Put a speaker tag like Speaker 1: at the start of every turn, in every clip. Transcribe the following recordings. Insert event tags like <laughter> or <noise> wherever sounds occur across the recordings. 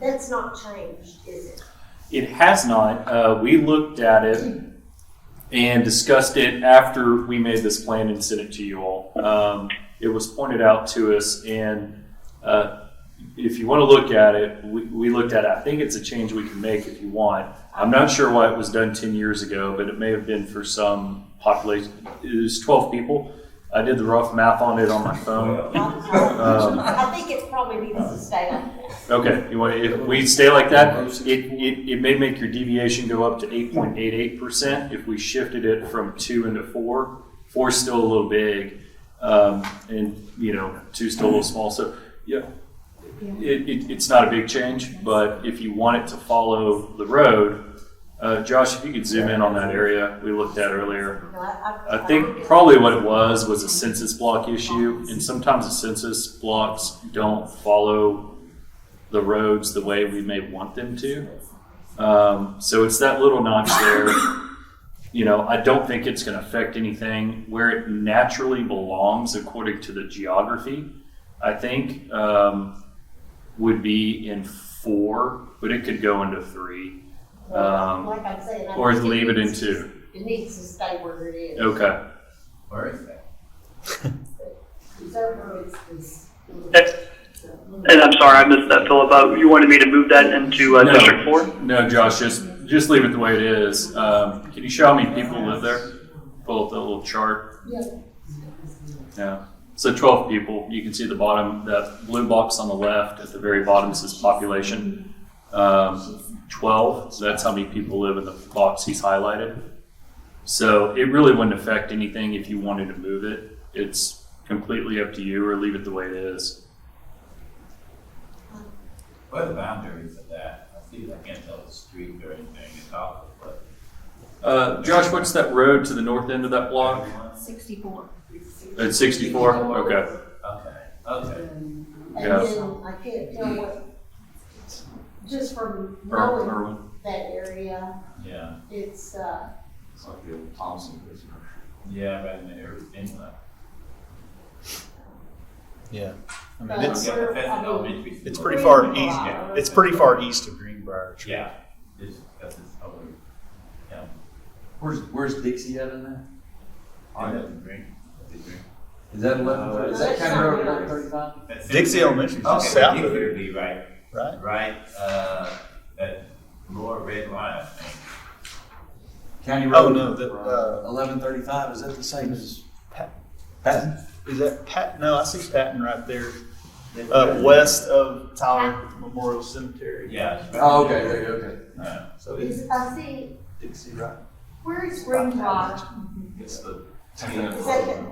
Speaker 1: That's not changed, is it?
Speaker 2: It has not. Uh, we looked at it and discussed it after we made this plan and sent it to you all. Um, it was pointed out to us, and uh, if you want to look at it, we, we looked at it. I think it's a change we can make if you want. I'm not sure why it was done 10 years ago, but it may have been for some population. It was 12 people. I did the rough math on it on
Speaker 1: <laughs>
Speaker 2: my phone. <laughs> Um,
Speaker 1: I think it probably needs to stay like that.
Speaker 2: Okay, you want, if we stay like that, it, it, it may make your deviation go up to eight point eight eight percent if we shifted it from two into four. Four's still a little big, um, and, you know, two's still a little small, so, yeah. It, it, it's not a big change, but if you want it to follow the road, uh, Josh, if you could zoom in on that area we looked at earlier.
Speaker 1: No, I-
Speaker 2: I think probably what it was was a census block issue, and sometimes the census blocks don't follow the roads the way we may want them to. Um, so it's that little notch there. You know, I don't think it's going to affect anything where it naturally belongs according to the geography. I think um, would be in four, but it could go into three um,
Speaker 1: Like I'm saying, I
Speaker 2: or
Speaker 1: think
Speaker 2: leave it in
Speaker 1: needs to-
Speaker 2: two.
Speaker 1: It needs to stay where it is.
Speaker 2: Okay.
Speaker 3: Where is that?
Speaker 1: Reserve roads is.
Speaker 2: Eh.
Speaker 4: And I'm sorry, I missed that, Philip. Uh, you wanted me to move that into uh,
Speaker 2: No.
Speaker 4: District 4?
Speaker 2: No, Josh, just just leave it the way it is. Um, can you show how many people live there? Pull up that little chart.
Speaker 1: Yeah.
Speaker 2: Yeah. So 12 people. You can see the bottom, that blue box on the left at the very bottom says population. Um, 12. So that's how many people live in the box he's highlighted. So it really wouldn't affect anything if you wanted to move it. It's completely up to you or leave it the way it is.
Speaker 3: Where are the boundaries of that? I see, I can't tell the street or anything at all, but.
Speaker 2: Uh, Josh, what's that road to the north end of that block?
Speaker 5: Sixty-four.
Speaker 2: At 64? Okay.
Speaker 3: Okay, okay.
Speaker 1: And
Speaker 2: Yeah.
Speaker 1: then I can't tell what, just from
Speaker 2: Or-
Speaker 1: knowing
Speaker 2: or-
Speaker 1: that area,
Speaker 3: Yeah,
Speaker 1: it's, uh,
Speaker 6: It's like the old Thompson Bridge.
Speaker 3: yeah, right in the area of Finland.
Speaker 7: Yeah. I mean,
Speaker 1: But-
Speaker 7: it's,
Speaker 3: Yeah, but that's an elementary
Speaker 7: it's
Speaker 3: school.
Speaker 7: pretty far
Speaker 1: Greenbrier.
Speaker 7: east. It's pretty far east of Greenbrier. True.
Speaker 3: Yeah, it's, that's it's over. Yeah.
Speaker 6: Where's, where's Dixie at in that? Oh,
Speaker 3: I know the green, the green.
Speaker 6: Is that eleven
Speaker 3: Uh,
Speaker 6: thirty, is that
Speaker 1: that's
Speaker 6: County Road
Speaker 1: not
Speaker 6: eleven
Speaker 1: nice.
Speaker 6: thirty-five?
Speaker 3: That's it.
Speaker 7: Dixie Elementary is
Speaker 3: Okay,
Speaker 7: just south of
Speaker 3: Dixie
Speaker 7: there,
Speaker 3: would be right,
Speaker 7: right?
Speaker 3: right, uh, that lower red line.
Speaker 6: County
Speaker 7: Oh,
Speaker 6: Road?
Speaker 7: no, that, uh,
Speaker 6: Eleven thirty-five, is that the same as?
Speaker 7: Pat-
Speaker 6: Patton?
Speaker 7: Is that Pat? No, I see Patton right there, uh, west of Tyler Memorial Cemetery.
Speaker 3: Yeah. Uh, it's right
Speaker 6: Oh, okay,
Speaker 3: there.
Speaker 6: there you go, okay.
Speaker 3: Yeah.
Speaker 7: So it's
Speaker 1: is, I see,
Speaker 6: Dixie, right?
Speaker 1: where is Green Rock?
Speaker 6: It's the.
Speaker 1: Is that it?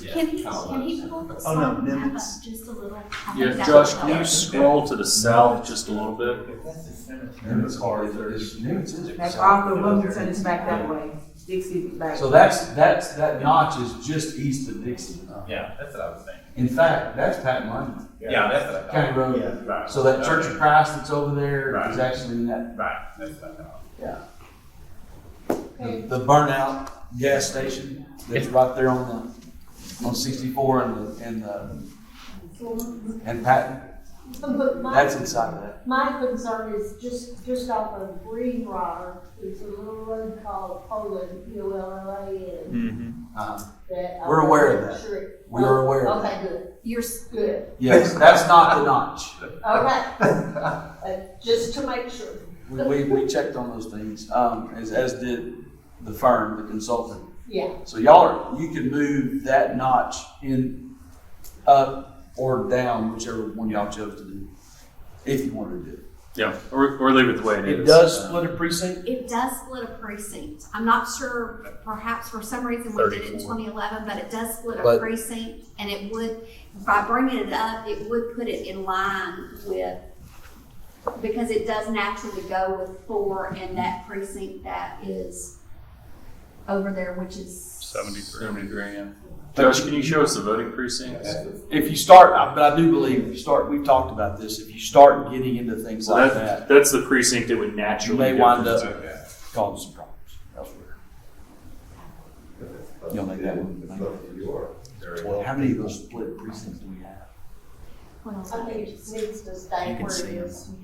Speaker 3: Yeah.
Speaker 5: Can he, can he pull the
Speaker 7: Oh, no,
Speaker 5: song back up
Speaker 7: Nimitz.
Speaker 5: just a little? I think
Speaker 2: Yeah,
Speaker 5: that
Speaker 2: Josh,
Speaker 5: would
Speaker 2: can you
Speaker 5: help.
Speaker 2: scroll to the south just a little bit?
Speaker 3: That's the cemetery.
Speaker 6: Newman's hard, there's Newman's. is it?
Speaker 8: That's off the Wilmington, it's back that way, Dixie is back.
Speaker 6: So that's, that's, that notch is just east of Dixie.
Speaker 3: Yeah, that's what I was thinking.
Speaker 6: In fact, that's Patton Lane,
Speaker 3: Yeah, that's what I thought.
Speaker 6: County Road.
Speaker 7: Yeah.
Speaker 3: Right.
Speaker 6: So that Church of Christ that's over there is
Speaker 3: Right.
Speaker 6: actually in that,
Speaker 3: Right, that's what I thought.
Speaker 6: the the burnout gas station that's right there on the, on sixty-four and the, and the, and Patton,
Speaker 1: But my-
Speaker 6: that's inside of that.
Speaker 1: My concern is just, just off of Green Rock, there's a little road called Poland, P O L L A N.
Speaker 7: Mhm.
Speaker 6: Uh,
Speaker 1: that I
Speaker 6: We're aware of
Speaker 1: wasn't
Speaker 6: that.
Speaker 1: sure it-
Speaker 6: We are aware of
Speaker 1: Okay, good,
Speaker 5: You're, s-
Speaker 1: good,
Speaker 6: Yes, that's not the notch. <laughs>
Speaker 1: okay. Uh, Just to make sure.
Speaker 6: We, we, we checked on those things, um, as, as did the firm, the consultant.
Speaker 1: Yeah,
Speaker 6: So y'all are, you can move that notch in, up or down, whichever one y'all chose to do, if you wanted to do
Speaker 2: Yeah, or, or leave it the way
Speaker 6: it.
Speaker 2: it is.
Speaker 6: a precinct?
Speaker 5: it does split a precinct. I'm not sure, perhaps for some reason we did it in
Speaker 7: 34.
Speaker 5: 2011, but it does split a
Speaker 6: But-
Speaker 5: precinct. And it would, by bringing it up, it would put it in line with, because it does naturally go with four and that precinct that is over there, which is.
Speaker 2: 73. yeah. Josh, can you show us the voting precincts?
Speaker 6: If you start, I- but I do believe, if you start, we've talked about this, if you start getting into things
Speaker 2: So
Speaker 6: like
Speaker 2: that,
Speaker 6: that,
Speaker 2: that's the precinct that would
Speaker 6: you
Speaker 2: naturally.
Speaker 6: may
Speaker 2: go.
Speaker 6: wind up
Speaker 3: Okay.
Speaker 6: causing some problems elsewhere. You'll make that one.
Speaker 7: Twelve.
Speaker 6: How many of those split precincts do we have?
Speaker 5: Well,
Speaker 1: I think it needs to stay
Speaker 7: You can
Speaker 1: where it
Speaker 7: see 'em.
Speaker 1: is.